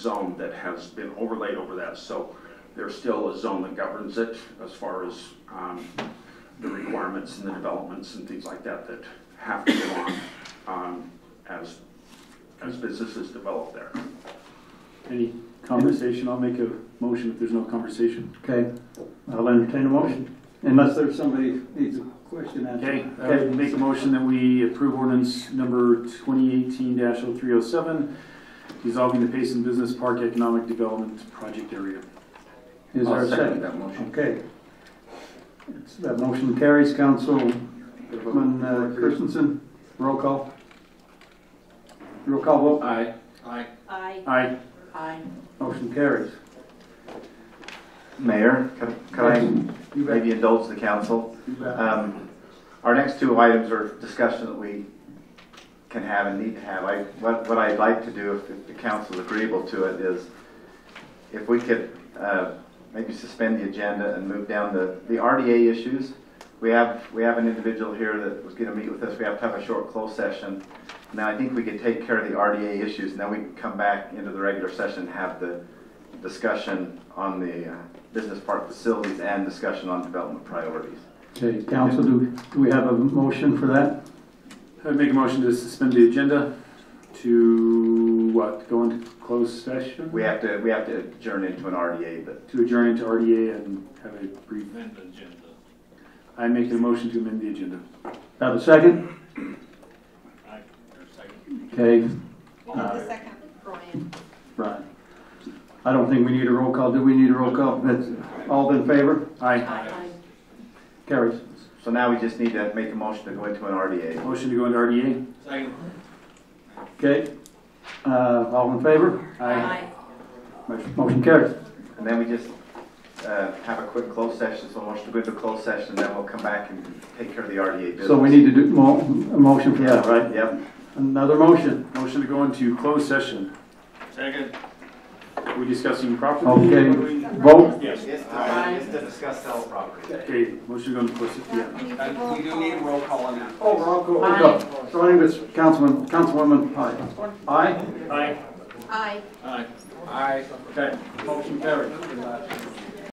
zone that has been overlaid over that, so there's still a zone that governs it as far as um, the requirements and the developments and things like that that have to go on um, as, as businesses develop there. Any conversation, I'll make a motion if there's no conversation. Okay, I'll entertain a motion, unless there's somebody who needs a question Okay, answered. I would make a motion that we approve ordinance number twenty eighteen 307 dissolving the Payson Business Park Economic Development Project Area. Is there a second? that motion. Okay. It's- That motion carries, Councilman uh, Christensen, roll call. Roll call vote, Aye. I Aye. I motion carries. Mayor, could could I You bet, maybe indulge the council? you bet. Um, Our next two items are discussion that we can have and need to have. I, what, what I'd like to do, if- if the council is agreeable to it, is if we could uh, maybe suspend the agenda and move down the, the RDA issues. We have, we have an individual here that was gonna meet with us, we have to have a short closed session. Now, I think we could take care of the RDA issues, and then we can come back into the regular session, and have the discussion on the uh, business park facilities and discussion on development priorities. Okay, council, do, do we have a motion for that? I would make a motion to suspend the agenda to, what, go into closed session? We have to, we have to adjourn into an RDA, but To adjourn into RDA and have a brief. Amend the agenda. I make the motion to amend the agenda. Have a second? Okay, The second, Brian. Brian. I don't think we need a roll call, do we need a roll call? That's, all in favor? Aye. I Carries. so now we just need to make a motion to go into an RDA. Motion to go into RDA? Okay, uh, all in favor? I Motion carries. And then we just uh, have a quick closed session, so motion to go into closed session, then we'll come back and take care of the RDA business. So we need to do mo- a motion for that, right? Yep. Another motion. Motion to go into closed session. Second. We discussing property? Okay, vote. Yes. Yes, to, yes, to discuss sell property. Okay, motion to go into closed, se- yeah. I We do need a roll call on that. Oh, I'll go. Starting with Councilman, Councilwoman Pye. Aye? I Aye. Okay. Motion carries.